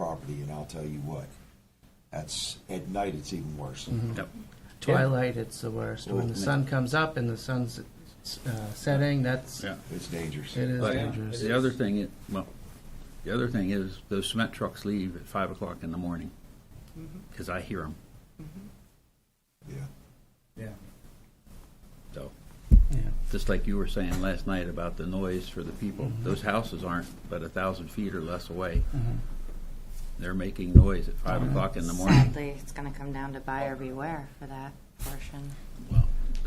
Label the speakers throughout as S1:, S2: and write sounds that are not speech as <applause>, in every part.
S1: property, and I'll tell you what, that's, at night, it's even worse.
S2: Mm-hmm.
S3: Yep.
S2: Twilight, it's the worst. When
S3: Oh,
S2: the sun comes up and the sun's uh, setting, that's,
S3: Yeah.
S2: it
S1: It's dangerous.
S2: is
S3: But
S2: dangerous.
S3: The other thing, it- well, the other thing is those cement trucks leave at five o'clock in the morning, because I hear them,
S1: Yeah.
S4: Yeah.
S3: so.
S2: Yeah.
S3: Just like you were saying last night about the noise for the people,
S2: Mm-hmm.
S3: those houses aren't but a thousand feet or less away. They're making noise at
S2: Uh-huh.
S3: five o'clock in the morning.
S5: Sadly, it's going to come down to buyer beware for that portion.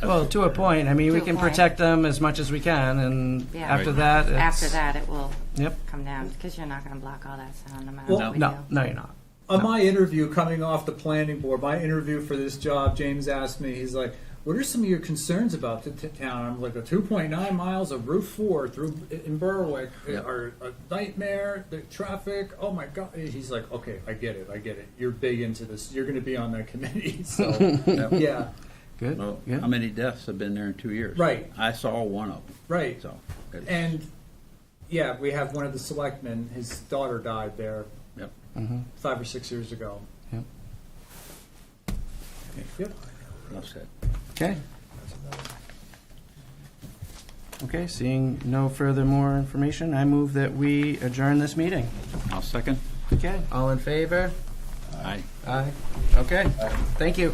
S2: Well, to a point, I mean, we
S5: To a
S2: can
S5: point.
S2: protect them as much as we can, and
S5: Yeah.
S2: after
S3: Right.
S2: that, it's.
S5: After that, it will
S2: Yep.
S5: come down because you're not going to block all that sound no matter
S4: Well,
S5: what we
S2: No,
S5: do.
S2: no, you're not.
S4: On Uh, my interview coming off the planning board, my interview for this job, James asked me, he's like, "What are some of your concerns about the t- town?" I'm like, "A 2.9 miles of Route 4 through in Berwick eh,
S3: Yeah.
S4: are a nightmare. The traffic. Oh my god." He's like, "Okay, I get it. I get it. You're big into this. You're going to be on that <laughs> committee." So
S2: <laughs>
S3: Yep.
S4: yeah,
S2: Good,
S3: Well,
S2: yeah.
S3: How many deaths have been there in two years?
S4: Right.
S3: I saw one of them,
S4: right.
S3: so. it's-
S4: And yeah, we have one of the selectmen. His daughter died there
S3: Yep.
S4: five or six years ago.
S2: Yep.
S4: Yep.
S3: Enough said.
S2: Okay. Okay, seeing no further more information, I move that we adjourn this meeting.
S3: I'll second.
S2: Okay, all in favor?
S3: Aye.
S2: Aye. Okay, thank you.